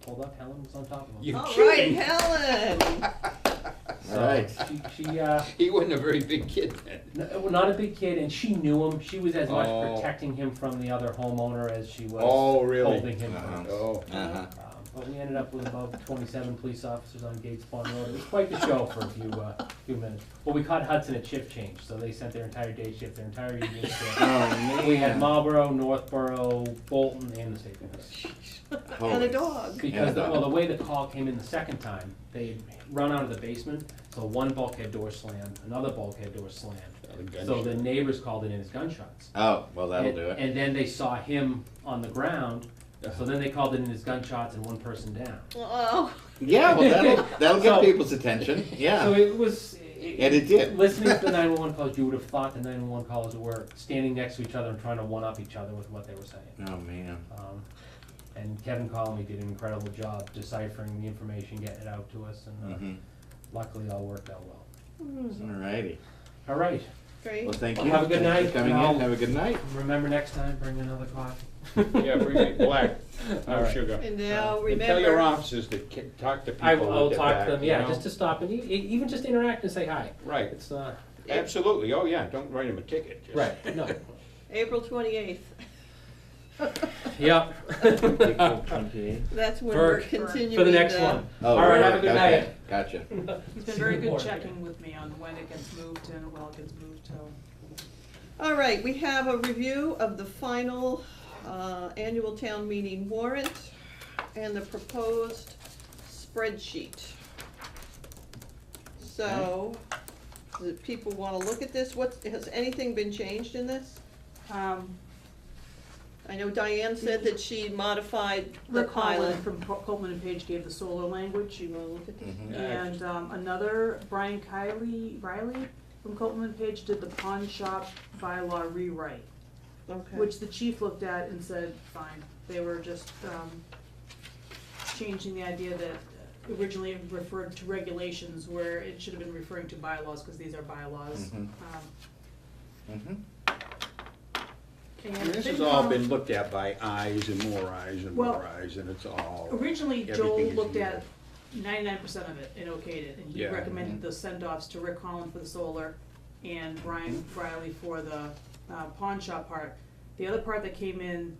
pulled up, Helen was on top of him. You- Oh, All right, kidding. Helen. So Alright. She, she, uh, He wasn't a very big kid then. n- well, not a big kid, and she knew him. She was as much Oh. protecting him from the other homeowner as she was Oh, really? holding him. Uh-huh. down. Oh. Uh-huh. Um, but we ended up with about 27 police officers on Gates Pond Road. It was quite the show for a few uh, few minutes. But we caught Hudson at shift change, so they sent their entire day shift, their entire evening shift. Oh, we had man. Marlboro, Northborough, Bolton, and the state police. And Holy a dog. Because, the- Yeah. well, the way the call came in the second time, they run out of the basement, so one bulkhead door slammed, another bulkhead door slammed. A gunshot. So the neighbors called it in as gunshots. Oh, well, that'll and, do it. And then they saw him on the ground, so then they called it in as gunshots and one person down. Oh, Yeah, well, that'll, that'll get So- people's attention. So Yeah. it was. And it did. Listening to the 911 calls, you would have thought the 911 calls were standing next to each other and trying to one up each other with what they were saying. Oh, man. Um, and Kevin Conley did an incredible job deciphering the information, getting it out to us, and uh, Mhm. luckily all worked out well. Alrighty. All right. great. Well, thank Well, you. have a good Thanks night, for Coming and I'll- in. Have a good night. Remember next time, bring another coffee. Yeah, bring it black, All no right. sugar. And now And Tell your remember, officers to ki- talk to people I will I'll with their talk back, to them, you yeah, know? just to stop and e- e- even just interact and say hi. Right, It's uh, absolutely, oh yeah, don't write them a ticket. just- right. No. April twenty-eighth, yep. that's when For- we're for continuing. For the next one. All right. Have a good night. Oh, Okay, Gotcha. He's been very good checking with me on when it gets moved and when it gets moved to. All right, we have a review of the final uh, annual town meeting warrant and the proposed spreadsheet. So, do people wanna look at this? What, has anything been changed in this? Um, I know Diane said that she modified the Rick pilot. Holland from Co- Coleman and Page gave the solar language. You wanna look at this? Mhm. And um, another, Brian Kiley, Riley from Coleman and Page did the pawn shop bylaw rewrite, Okay. which the chief looked at and said, fine. They were just um, changing the idea that originally it referred to regulations where it should have been referring to bylaws, because these are bylaws. Mhm. Um, Mhm. And and This has all FinCom- been looked at by eyes and more eyes and Well, more eyes, and it's all. Originally, Joel Everything is looked legal. at ninety-nine percent of it and okayed it, and he Yeah. recommended the send-offs to Rick Holland for the solar and Brian Hmm. Riley for the uh, pawn shop part. The other part that came in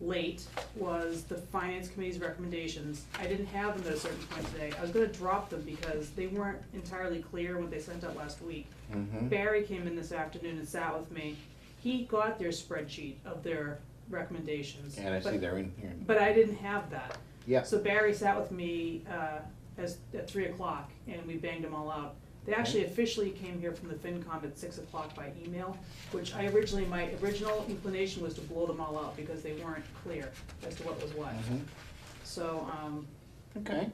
late was the finance committee's recommendations. I didn't have them at a certain point today. I was gonna drop them because they weren't entirely clear what they sent out last week. Mhm. Barry came in this afternoon and sat with me. He got their spreadsheet of their recommendations. And I see but- they're in here. But I didn't have that. Yeah. So Barry sat with me uh, as, at three o'clock, and we banged them all out. They actually officially came here from the FinCom at six o'clock by email, which I originally, my original inclination was to blow them all out because they weren't clear as to what was what. Mhm. So, um, Okay.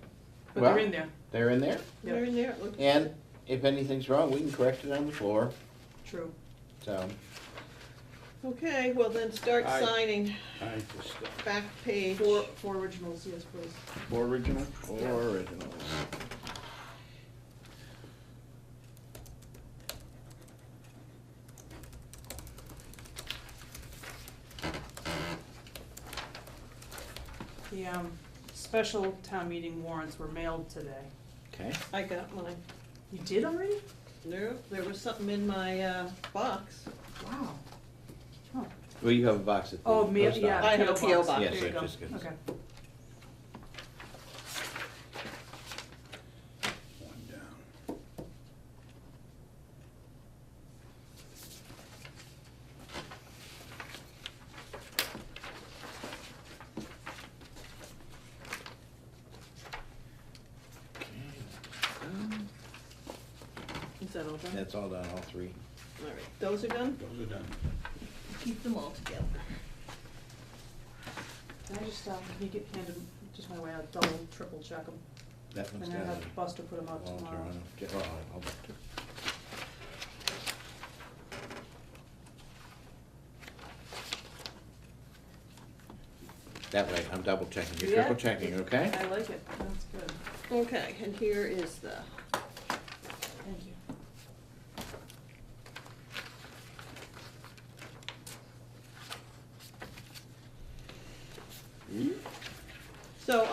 but they're Well- in there, They're in there. yeah. They're in there, it looks- And if anything's wrong, we can correct it on the floor. true. So, Okay, well then start Aye. signing I just, uh, back page. Four, four originals, yes, please. four original, four original. The um, special town meeting warrants were mailed today. Okay. I got mine. You did already? No, there was something in my uh, box. Wow. Well, you have a box at the Oh, mail, post yeah. office. I have a PO box. Yes, There you I go. just got- Okay. one down. Is that all done? That's all done, all three. All right, those are done? Those are done. Keep them all together. Can I just, um, can you get handed, just my way, I'll double, triple check them, That one's and then done. have Buster put them out Walter, tomorrow. uh, get- oh, I'll look too. That way, I'm double checking, you're Yeah. triple checking, okay? I like it, that's good, Okay, and here is the, thank you. so